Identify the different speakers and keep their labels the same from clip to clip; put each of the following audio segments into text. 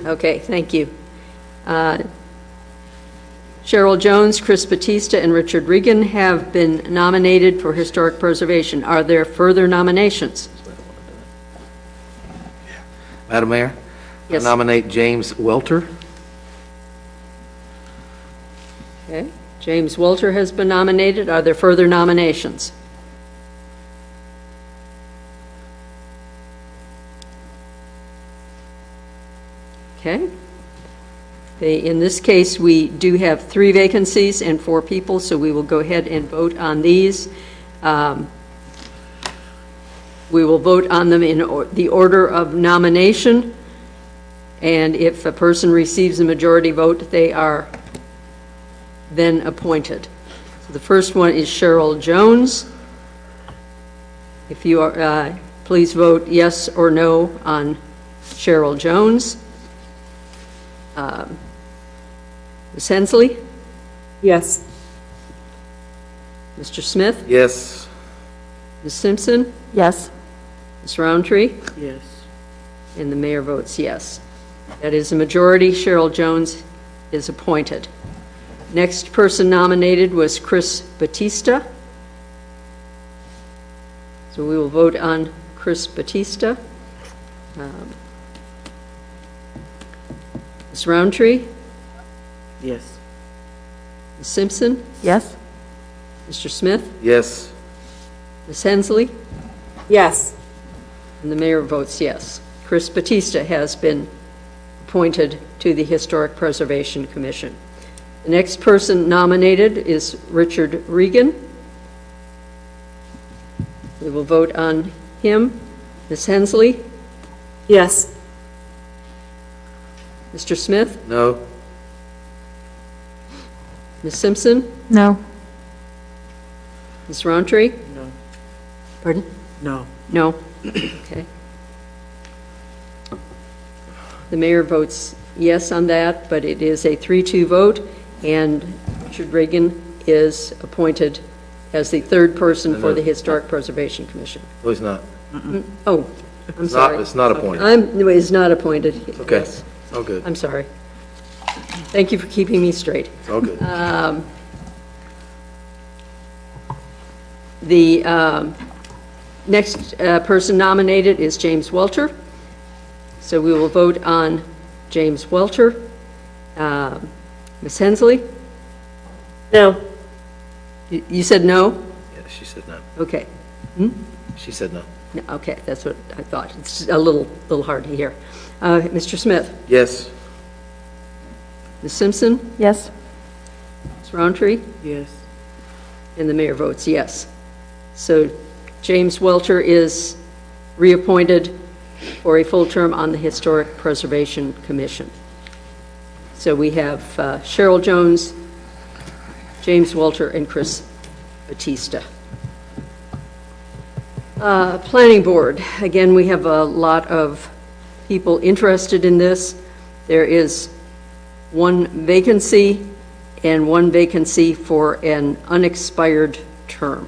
Speaker 1: Okay, thank you. Uh, Cheryl Jones, Chris Batista, and Richard Regan have been nominated for Historic Preservation. Are there further nominations?
Speaker 2: Madam Mayor? I
Speaker 1: Yes.
Speaker 2: Nominate James Welter.
Speaker 1: Okay, James Walter has been nominated. Are there further nominations? Okay. They- In this case, we do have three vacancies and four people, so we will go ahead and vote on these. Um, We will vote on them in or- the order of nomination, and if a person receives a majority vote, they are then appointed. So The first one is Cheryl Jones. If you are, uh, please vote yes or no on Cheryl Jones. Um, Ms. Hensley?
Speaker 3: Yes.
Speaker 1: Mr. Smith?
Speaker 2: Yes.
Speaker 1: Ms. Simpson?
Speaker 3: Yes.
Speaker 1: Ms. Roundtree?
Speaker 3: Yes.
Speaker 1: And the mayor votes yes. That is a majority. Cheryl Jones is appointed. Next person nominated was Chris Batista. So we will vote on Chris Batista. Um, Ms. Roundtree,
Speaker 3: Yes.
Speaker 1: Ms. Simpson,
Speaker 3: Yes.
Speaker 1: Mr. Smith,
Speaker 2: Yes.
Speaker 1: Ms. Hensley,
Speaker 3: Yes.
Speaker 1: and the mayor votes yes. Chris Batista has been appointed to the Historic Preservation Commission. The next person nominated is Richard Regan. We will vote on him. Ms. Hensley,
Speaker 3: Yes.
Speaker 1: Mr. Smith,
Speaker 2: No.
Speaker 1: Ms. Simpson,
Speaker 3: No.
Speaker 1: Ms. Roundtree?
Speaker 3: No.
Speaker 1: Pardon?
Speaker 3: No.
Speaker 1: No? Okay. The mayor votes yes on that, but it is a 3-2 vote, and Richard Reagan is appointed as the third person for the Historic Preservation Commission.
Speaker 2: No, he's not.
Speaker 1: Oh, I'm
Speaker 2: It's not,
Speaker 1: sorry.
Speaker 2: it's not appointed.
Speaker 1: I'm, no, is not appointed.
Speaker 2: Okay.
Speaker 1: Yes,
Speaker 2: It's all good.
Speaker 1: I'm sorry. Thank you for keeping me straight.
Speaker 2: It's all good.
Speaker 1: Uh, The um, next uh, person nominated is James Welter. So we will vote on James Welter. Um, Ms. Hensley?
Speaker 3: No.
Speaker 1: You you said no?
Speaker 2: Yeah, she said no.
Speaker 1: Okay.
Speaker 2: She said no.
Speaker 1: No, Okay, that's what I thought. It's a little, little hard to hear. Uh, Mr. Smith?
Speaker 2: Yes.
Speaker 1: Ms. Simpson?
Speaker 3: Yes.
Speaker 1: Ms. Roundtree?
Speaker 3: Yes.
Speaker 1: And the mayor votes yes. So James Welter is reappointed for a full term on the Historic Preservation Commission. So we have uh, Cheryl Jones, James Welter, and Chris Batista. Uh, Planning Board, again, we have a lot of people interested in this. There is one vacancy and one vacancy for an unexpired term.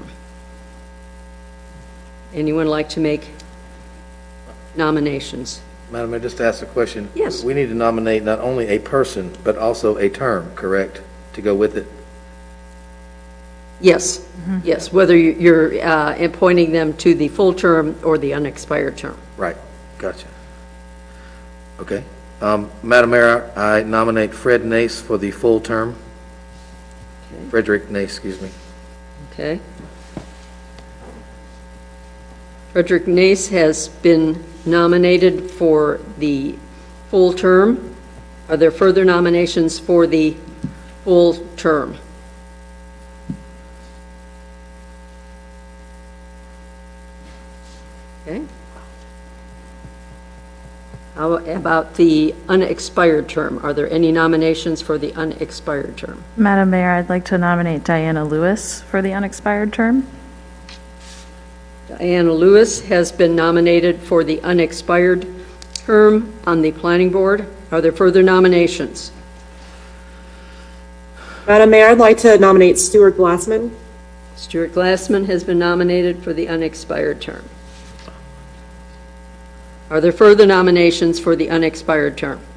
Speaker 1: Anyone like to make nominations?
Speaker 2: Madam Mayor, just to ask a question.
Speaker 1: Yes.
Speaker 2: We need to nominate not only a person, but also a term, correct, to go with it?
Speaker 1: Yes, yes, whether you- you're uh, appointing them to the full term or the unexpired term.
Speaker 2: Right. Gotcha. Okay. Um, Madam Mayor, I nominate Fred Nace for the full term. Frederick Nace, excuse me.
Speaker 1: Okay. Frederick Nace has been nominated for the full term. Are there further nominations for the full term? Okay. How about the unexpired term? Are there any nominations for the unexpired term?
Speaker 4: Madam Mayor, I'd like to nominate Diana Lewis for the unexpired term.
Speaker 1: Diana Lewis has been nominated for the unexpired term on the Planning Board. Are there further nominations?
Speaker 3: Madam Mayor, I'd like to nominate Stuart Glassman.
Speaker 1: Stuart Glassman has been nominated for the unexpired term. Are there further nominations for the unexpired term?